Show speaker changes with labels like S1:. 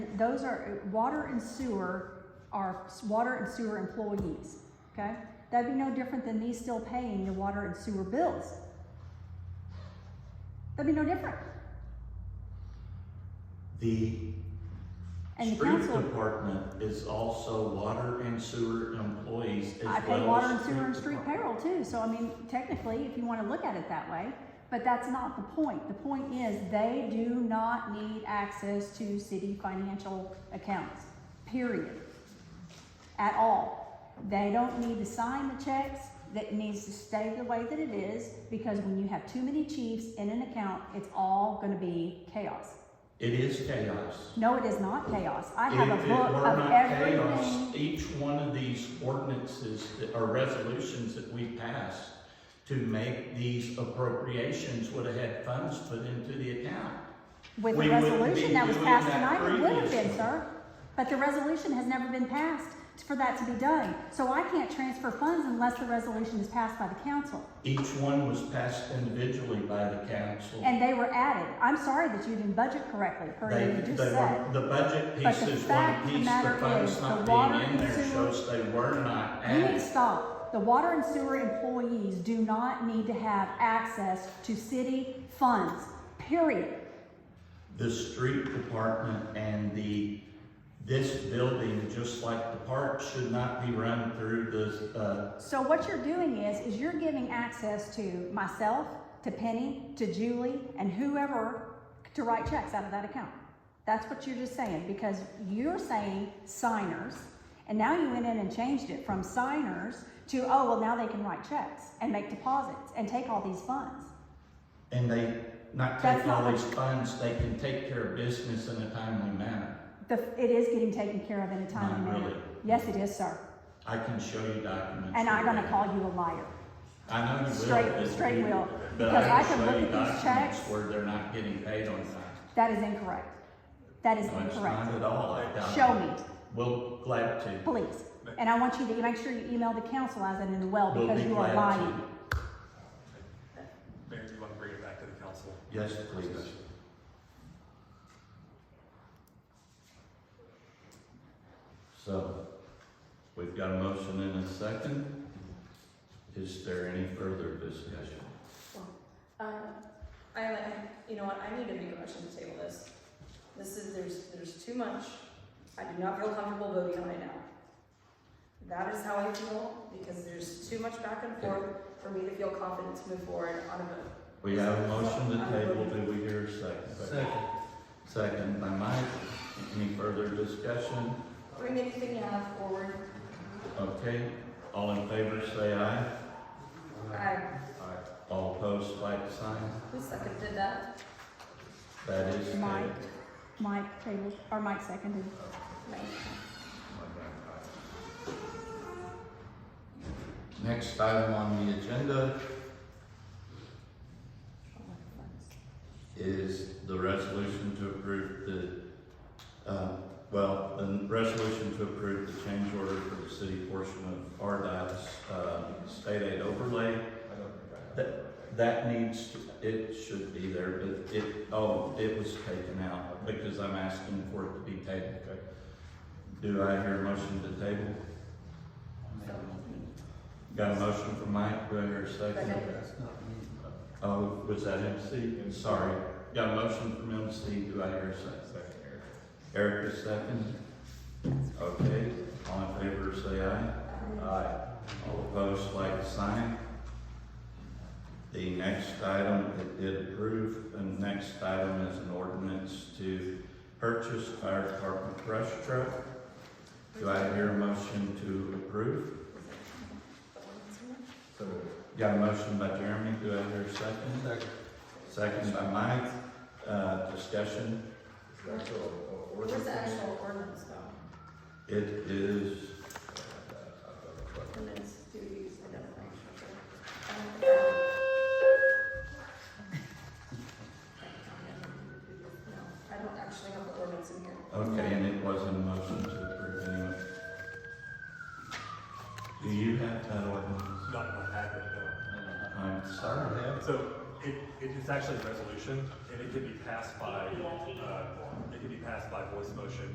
S1: those are, water and sewer are s- water and sewer employees, okay? That'd be no different than me still paying your water and sewer bills. That'd be no different.
S2: The
S1: And the
S2: street
S1: council,
S2: department is also water and sewer employees as well.
S1: I pay water
S2: as
S1: and sewer and street
S2: department.
S1: payroll too, so I mean, technically, if you wanna look at it that way, but that's not the point. The point is, they do not need access to city financial accounts, period. at all. They don't need to sign the checks, that needs to stay the way that it is, because when you have too many chiefs in an account, it's all gonna be chaos.
S2: It is chaos.
S1: No, it is not chaos. I
S2: If
S1: have
S2: it
S1: a book
S2: were
S1: of
S2: not chaos,
S1: everything.
S2: Each one of these ordinances that, or resolutions that we passed to make these appropriations would have had funds put into the account.
S1: With the
S2: we wouldn't be
S1: resolution that was
S2: doing
S1: passed
S2: that
S1: tonight, it would have been,
S2: previously.
S1: sir. But the resolution has never been passed for that to be done. So I can't transfer funds unless the resolution is passed by the council.
S2: Each one was passed individually by the council.
S1: And they were added. I'm sorry that you didn't budget correctly, per
S2: They-
S1: what you just
S2: they
S1: said.
S2: were- The budget
S1: But
S2: piece
S1: the
S2: is one
S1: fact of the
S2: piece, the
S1: matter is,
S2: funds
S1: the
S2: not
S1: water
S2: being in
S1: and
S2: there
S1: sewer-
S2: shows they were not
S1: You need to
S2: added.
S1: stop. The water and sewer employees do not need to have access to city funds, period.
S2: The street department and the, this building, just like the park, should not be run through the, uh,
S1: So what you're doing is, is you're giving access to myself, to Penny, to Julie, and whoever to write checks out of that account. That's what you're just saying, because you're saying signers, and now you went in and changed it from signers to, oh, well, now they can write checks and make deposits and take all these funds.
S2: and they not
S1: That's
S2: take all
S1: not-
S2: these funds, they can take care of business in a timely manner.
S1: The, it is getting taken care of in a timely
S2: Not
S1: manner.
S2: really.
S1: Yes, it is, sir.
S2: I can show you documents.
S1: And I'm gonna
S2: where-
S1: call you a liar.
S2: I know you will.
S1: Straight-
S2: but
S1: straight
S2: you-
S1: will.
S2: But
S1: Because
S2: I
S1: I can
S2: can show
S1: look
S2: you
S1: at these
S2: documents
S1: checks.
S2: where they're not getting paid on time.
S1: That is incorrect. That is
S2: No, it's not
S1: incorrect.
S2: at all. I doubt
S1: Show
S2: it.
S1: me,
S2: We'll glad to.
S1: please. And I want you to make sure you email the council as an in the well
S2: We'll
S1: because
S2: be
S1: you are
S2: glad to.
S1: lying.
S3: Mayor, do you want to bring it back to the council?
S2: Yes,
S3: for
S2: please.
S3: discussion?
S2: So, we've got a motion and a second. Is there any further discussion?
S4: Um, I, I- you know what, I need to make a motion to table this. This is, there's, there's too much. I do not feel comfortable voting on it now. That is how I feel, because there's too much back and forth for me to feel confident to move forward on a vote.
S2: We have a motion to table, do we hear a second? Second. Second by Mike, any further discussion?
S4: Bring anything you have forward.
S2: Okay, all in favor say aye.
S4: I,
S2: Aye. All opposed, like sign,
S4: who seconded that?
S2: that is
S1: Mike.
S2: tabled.
S1: Mike tabled, or Mike seconded.
S4: Mike.
S2: Next item on the agenda is the resolution to approve the, uh, well, the resolution to approve the change order for the city portion of RDOT's, uh, state aid overlay. That, that needs, it should be there, but it, oh, it was taken out because I'm asking for it to be tabled. Do I hear a motion to table? Got a motion from Mike, do I hear a second?
S4: Second.
S2: Oh, was that MC? Sorry. Got a motion from MC, do I hear a second? Eric is second. Okay, all in favor, say aye. Aye. All opposed, like sign. The next item it did approve, and the next item is an ordinance to purchase fire department brush truck. Do I hear a motion to approve? Got a motion by Jeremy, do I hear a second? Second. by Mike, uh, discussion.
S4: Where's the actual ordinance though?
S2: It is,
S4: Ordinance duties identification. No, I don't actually have the ordinance in here.
S2: okay, and it was a motion to approve anyway. Do you have that ordinance?
S3: Not in my packet,
S2: I'm sorry,
S3: no. uh, So it, it is actually a resolution, and it can be passed by, uh, it can be passed by voice motion